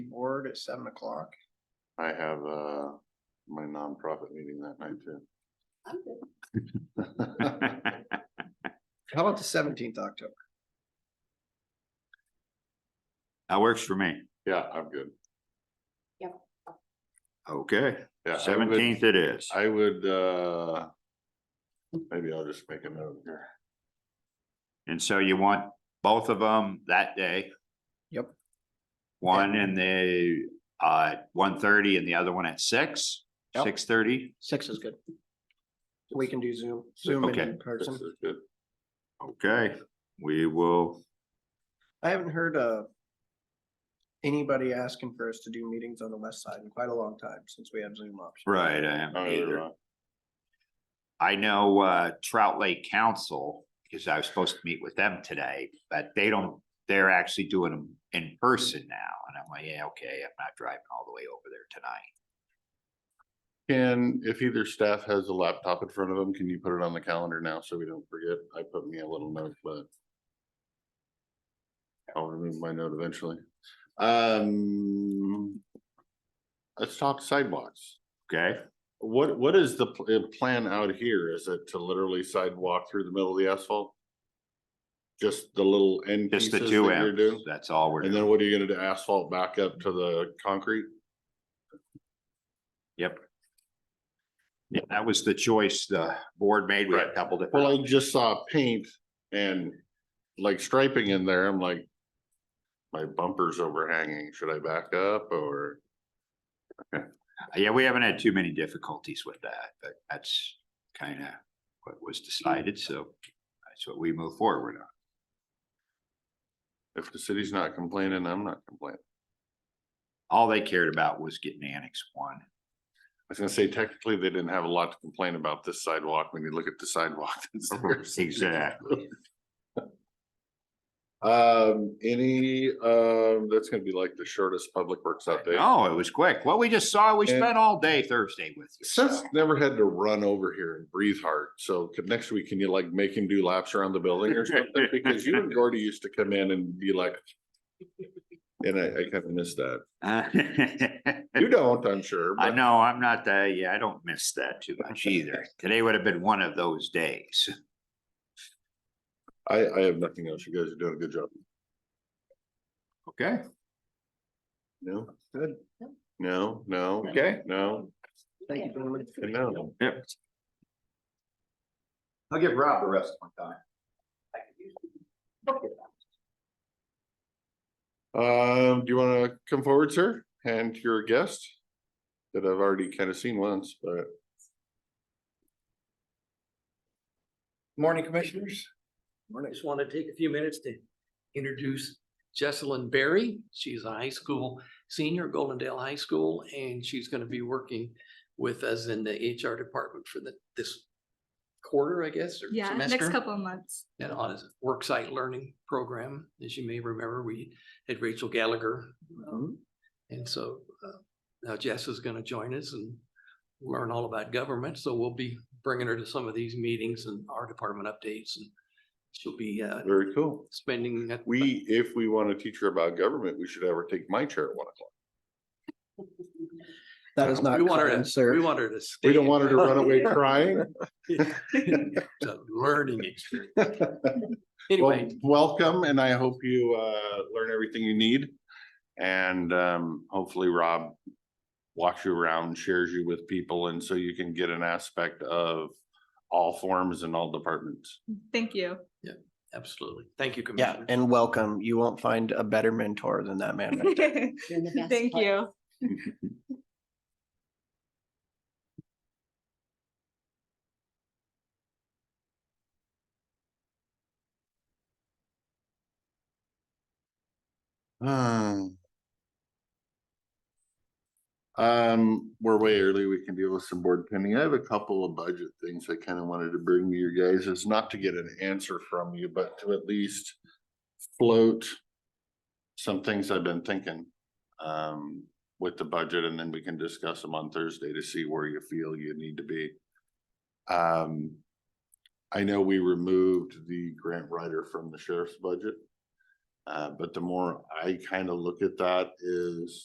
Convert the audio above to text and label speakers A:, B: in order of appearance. A: board at seven o'clock.
B: I have, uh, my nonprofit meeting that night
C: I'm good.
B: too.
A: How about the seventeenth October?
D: That works for me.
B: Yeah, I'm good.
D: Okay,
B: Yeah. I would-
D: seventeenth it is.
B: I would, uh, maybe I'll just make a note here.
D: And so you want both of them that day?
A: Yep.
D: One in the, uh, one thirty and the other one at six,
A: Yep.
D: six thirty?
A: Six is good. We can do Zoom, Zoom and
D: Okay.
A: in
B: This
A: person.
B: is good.
D: Okay, we will,
A: I haven't heard, uh, anybody asking for us to do meetings on the west side in quite a long time since we have Zoom options.
D: right, I
B: Oh,
D: haven't
B: you're
D: either.
B: right.
D: I know, uh, Trout Lake Council, because I was supposed to meet with them today, but they don't, they're actually doing them in person now. And I'm like, yeah, okay, I'm not driving all the way over there tonight.
B: Can, if either staff has a laptop in front of them, can you put it on the calendar now so we don't forget? I put me a little note, but I'll remove my note eventually. Um, let's talk sidewalks.
D: Okay,
B: What, what is the pl- uh, plan out here? Is it to literally sidewalk through the middle of the asphalt? Just the little end pieces
D: just the
B: that
D: two
B: you're doing?
D: M's, that's all we're
B: And
D: doing.
B: then what are you gonna do? Asphalt back up to the concrete?
D: Yeah, that was the choice the board made with a
B: Right.
D: couple
B: Well, I
D: different,
B: just saw paint and like striping in there. I'm like, my bumper's overhanging. Should I back up or?
D: yeah, we haven't had too many difficulties with that, but that's kind of what was decided, so that's what we move forward on.
B: If the city's not complaining, I'm not complaining.
D: All they cared about was getting annex one.
B: I was gonna say technically, they didn't have a lot to complain about this sidewalk when you look at the sidewalk. that's there.
D: Exactly.
B: Um, any, um, that's gonna be like the shortest public works update.
D: Oh, it was quick. What we just saw, we
B: And-
D: spent all day Thursday with you. so-
B: Seth's never had to run over here and breathe hard, so could, next week, can you like make him do laps around the building or something? Because you and Gordy used to come in and be like. And I, I kind of miss that. You don't, I'm sure.
D: I
B: but-
D: know, I'm not that, yeah, I don't miss that too much either. Today would have been one of those days.
B: I, I have nothing else. You guys are doing a good job.
D: Okay.
B: No,
A: Good.
B: no, no,
D: Okay.
B: no,
A: Thank you, gentlemen.
B: and no.
D: I'll give Rob the rest of my time.
B: Um, do you wanna come forward, sir, and your guest? That I've already kind of seen once, but
E: Morning, Commissioners. I
A: Morning.
E: just want to take a few minutes to introduce Jesselyn Berry. She's a high school senior at Golden Dale High School, and she's going to be working with us in the HR department for the, this quarter, I guess, or
F: Yeah, next
E: semester.
F: couple of months.
E: And on his worksite learning program, as you may remember, we had Rachel Gallagher. um, And so uh, now Jess is going to join us and learn all about government. So we'll be bringing her to some of these meetings and our department updates and she'll be uh,
B: very cool.
E: spending. that-
B: We, if we wanna teach her about government, we should have her take my chair at one o'clock.
A: That is not
E: We want her
A: kind,
E: to, we
A: sir.
E: want her to.
B: We
E: stay
B: don't want her to run away
E: in-
B: crying.
E: It's a learning experience. Anyway,
B: Well, welcome and I hope you uh learn everything you need. And um hopefully Rob walks you around, shares you with people, and so you can get an aspect of all forms and all departments.
F: Thank you.
E: absolutely. Thank you,
A: Yeah,
E: Commissioner.
A: and welcome. You won't find a better mentor than that man. right there.
F: Thank you.
B: Um, Um, we're way early. We can deal with some board pending. I have a couple of budget things I kind of wanted to bring to you guys. It's not to get an answer from you, but to at least float some things I've been thinking um with the budget and then we can discuss them on Thursday to see where you feel you need to be. Um, I know we removed the grant writer from the sheriff's budget. Uh, but the more I kind of look at that is